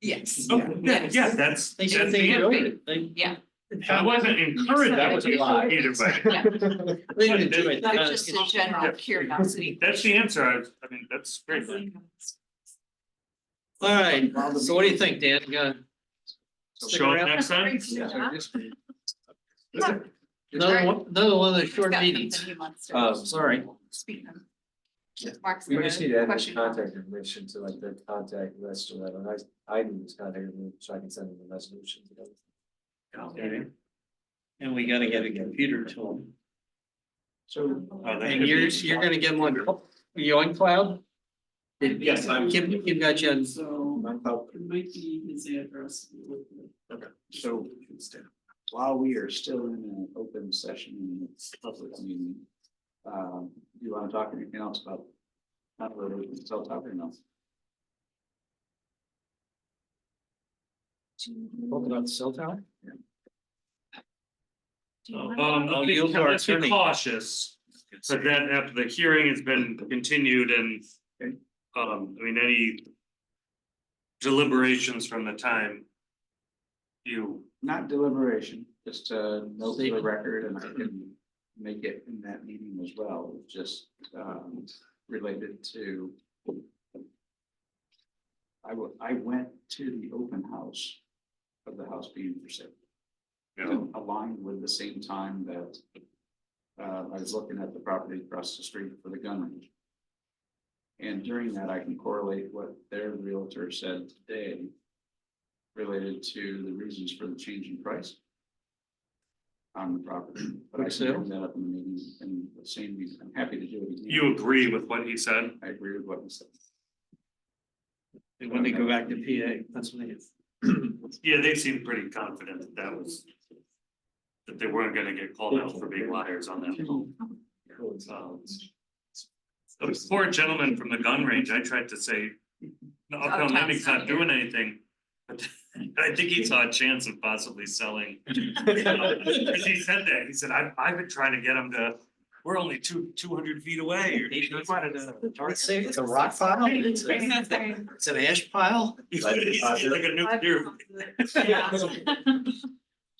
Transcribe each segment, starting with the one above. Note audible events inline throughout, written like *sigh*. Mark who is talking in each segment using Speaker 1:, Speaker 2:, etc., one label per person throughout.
Speaker 1: Yes.
Speaker 2: Oh, yeah, yeah, that's,
Speaker 3: They
Speaker 2: that's
Speaker 3: should say
Speaker 2: the
Speaker 3: you
Speaker 2: answer.
Speaker 3: it, they,
Speaker 1: Yeah.
Speaker 2: That wasn't encouraged, that was
Speaker 3: Yeah.
Speaker 2: either way.
Speaker 3: they didn't do it.
Speaker 1: That's
Speaker 3: Uh,
Speaker 1: just a general curiosity.
Speaker 2: That's the answer. I, was- I mean, that's great.
Speaker 3: All right, so what do you think, Dan, You gonna stick
Speaker 2: Show up
Speaker 3: around?
Speaker 2: next time.
Speaker 3: Another one, another one of the short meetings, Oh,
Speaker 4: Um,
Speaker 3: sorry.
Speaker 1: Speaking of.
Speaker 4: Yeah.
Speaker 1: Mark's.
Speaker 4: We just
Speaker 1: word,
Speaker 4: need to add his
Speaker 1: question.
Speaker 4: contact information to like the contact list or whatever, and I, I need his contact, information so I can send him the resolution.
Speaker 3: And we gotta get a computer to them.
Speaker 4: So.
Speaker 2: Oh, that
Speaker 3: And
Speaker 2: could
Speaker 3: you're,
Speaker 2: be-
Speaker 3: you're gonna get them on, cl- you on cloud?
Speaker 4: Yes, I'm-
Speaker 3: Kim, Kim got you on,
Speaker 5: So
Speaker 4: My cloud,
Speaker 5: it might be his address.
Speaker 6: So while we are still in an open session and it's public meeting, um, you want to talk anything else about? Not really, we can still talk or no?
Speaker 4: talking about the cell tower?
Speaker 2: Um,
Speaker 3: I'll
Speaker 2: let's
Speaker 3: yield
Speaker 2: be-
Speaker 3: to our
Speaker 2: let's be
Speaker 3: attorney.
Speaker 2: cautious, but then after the hearing has been continued and.
Speaker 6: Okay.
Speaker 2: Um, I mean, any. Deliberations from the time. You,
Speaker 6: Not deliberation, just a note for the
Speaker 3: Statement.
Speaker 6: record and I can make it in that meeting as well, just, um, related to. I wa- I went to the open house of the house being for sale.
Speaker 2: you know,
Speaker 6: aligned with the same time that uh, I was looking at the property across the street for the gun range. And during that, I can correlate what their realtor said today related to the reasons for the change in price on the property. But I can bring that up in the meeting and the same reason. I'm happy to do it. again.
Speaker 2: you agree with what he said.
Speaker 6: I agree with what you said.
Speaker 3: they want to go back to PA, that's what it is.
Speaker 2: Yeah, they seemed pretty confident that that was. That they weren't gonna get called out for being liars on that. Um, Those poor gentlemen from the gun range, I tried to say, no,
Speaker 1: Out of
Speaker 2: Uptown
Speaker 1: town's
Speaker 2: Living's
Speaker 1: not
Speaker 2: not
Speaker 1: here."
Speaker 2: doing anything. But *laughs* I think he saw a chance of possibly selling. Cause he said that, he said, I've, I've been trying to get him to, we're only two, two hundred feet away. or-
Speaker 3: He wanted
Speaker 2: *laughs*
Speaker 3: to-
Speaker 2: Target.
Speaker 3: It's a rock pile, *laughs* it's a- it's an ash pile,
Speaker 2: He's Like a nuclear,
Speaker 3: at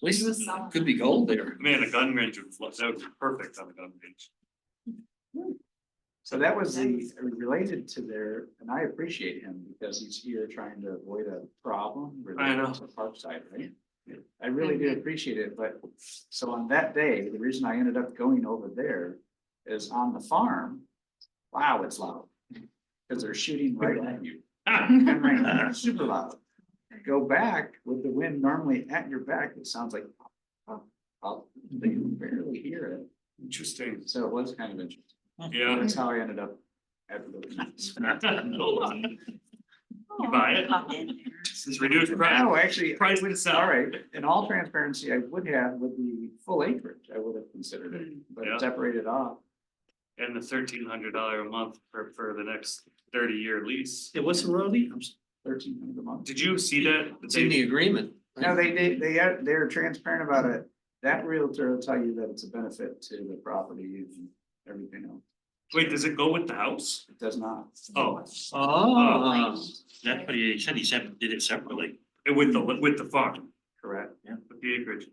Speaker 3: least it could be gold there.
Speaker 2: man, a gun range would, fl- that would be perfect on a gun range.
Speaker 6: So that was the, related to their, and I appreciate him because he's here trying to avoid a problem
Speaker 2: I know. Mm-hmm.
Speaker 6: related to Parkside, right? I really do appreciate it, but so on that day, the reason I ended up going over there is on the farm. Wow, it's loud. Cause they're shooting right at you.
Speaker 2: Ah,
Speaker 6: And
Speaker 1: *laughs*
Speaker 2: *laughs*
Speaker 6: right, Super loud. Go back with the wind normally at your back, it sounds like. oh, pop, pop, They can barely hear
Speaker 2: Interesting,
Speaker 6: it, so it was kind of interesting.
Speaker 2: yeah. *laughs*
Speaker 6: That's how I ended up at the.
Speaker 2: You buy it? It's reduced price,
Speaker 6: No, actually,
Speaker 2: price to sell.
Speaker 6: all right, in all transparency, I would have with the full acreage, I would have considered it, but
Speaker 2: Yeah.
Speaker 6: separated off.
Speaker 2: And the thirteen hundred dollar a month for, for the next thirty year lease.
Speaker 3: It was a roadie, I'm s-
Speaker 6: Thirteen hundred a month.
Speaker 2: Did you see that?
Speaker 3: it's in the agreement.
Speaker 6: No, they, they, they, are- they're transparent about it. That realtor will tell you that it's a benefit to the property and everything else.
Speaker 2: Wait, does it go with the house?
Speaker 6: It does not.
Speaker 2: Oh,
Speaker 3: Oh,
Speaker 1: That's
Speaker 2: what he said, he said did it separately. With the, with the farm,
Speaker 6: Correct.
Speaker 2: with the acreage.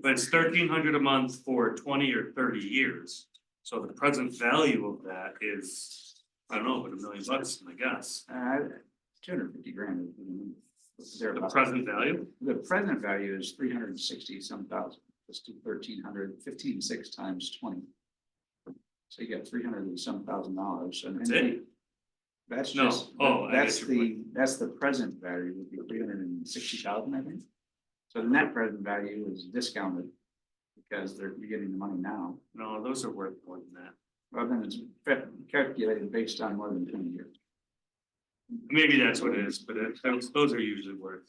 Speaker 2: But it's thirteen hundred a month for twenty or thirty years. So the present value of that is, I don't know, but a million bucks, I guess.
Speaker 6: Uh, two hundred fifty grand. is
Speaker 2: The
Speaker 6: thereabouts.
Speaker 2: present value?
Speaker 6: The present value is three hundred and sixty some thousand, let's do thirteen hundred, fifteen six times twenty. So you got three hundred and some thousand dollars and.
Speaker 2: That's it?
Speaker 6: That's
Speaker 2: No.
Speaker 6: just,
Speaker 2: Oh, I get
Speaker 6: that's
Speaker 2: your
Speaker 6: the, that's the present value would be three hundred and sixty thousand, I think. So the net present value is discounted because they're, you're getting the money now,
Speaker 2: No, those are worth more than that.
Speaker 6: rather than it's fa- calculated based on more than twenty years. *laughs*
Speaker 2: Maybe that's what it is, but it- those, those are usually worth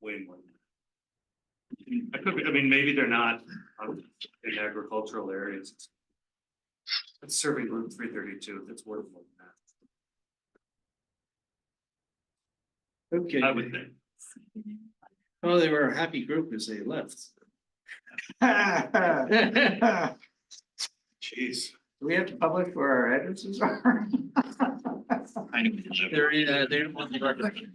Speaker 2: way more. than that. I could, be- I mean, maybe they're not um, in agricultural areas. It's serving room three thirty-two, that's worth more than
Speaker 3: okay.
Speaker 2: that, I would think.
Speaker 3: Oh, they were a happy group as they *laughs* left.
Speaker 2: Jeez.
Speaker 6: Do we have to publish where our addresses are? *laughs*
Speaker 3: They're, uh, they don't want the record.